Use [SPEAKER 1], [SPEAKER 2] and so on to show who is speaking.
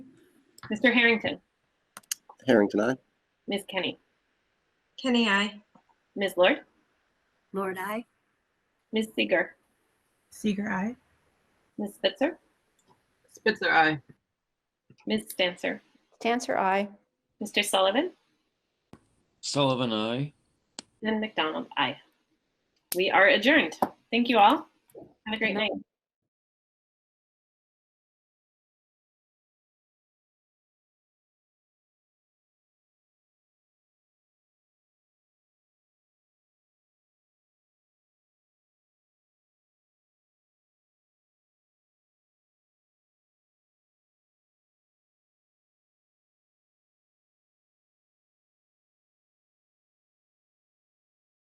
[SPEAKER 1] Mr. Harrington,
[SPEAKER 2] Harrington, aye.
[SPEAKER 1] Ms. Kenny,
[SPEAKER 3] Kenny, I.
[SPEAKER 1] Ms. Lord,
[SPEAKER 4] Lord, I.
[SPEAKER 1] Ms. Seeger,
[SPEAKER 5] Seeger, I.
[SPEAKER 1] Ms. Spitzer,
[SPEAKER 6] Spitzer, aye.
[SPEAKER 1] Ms. Stanser,
[SPEAKER 7] Stanser, I.
[SPEAKER 1] Mr. Sullivan,
[SPEAKER 8] Sullivan, I.
[SPEAKER 1] and McDonald, aye. We are adjourned. Thank you all. Have a great night.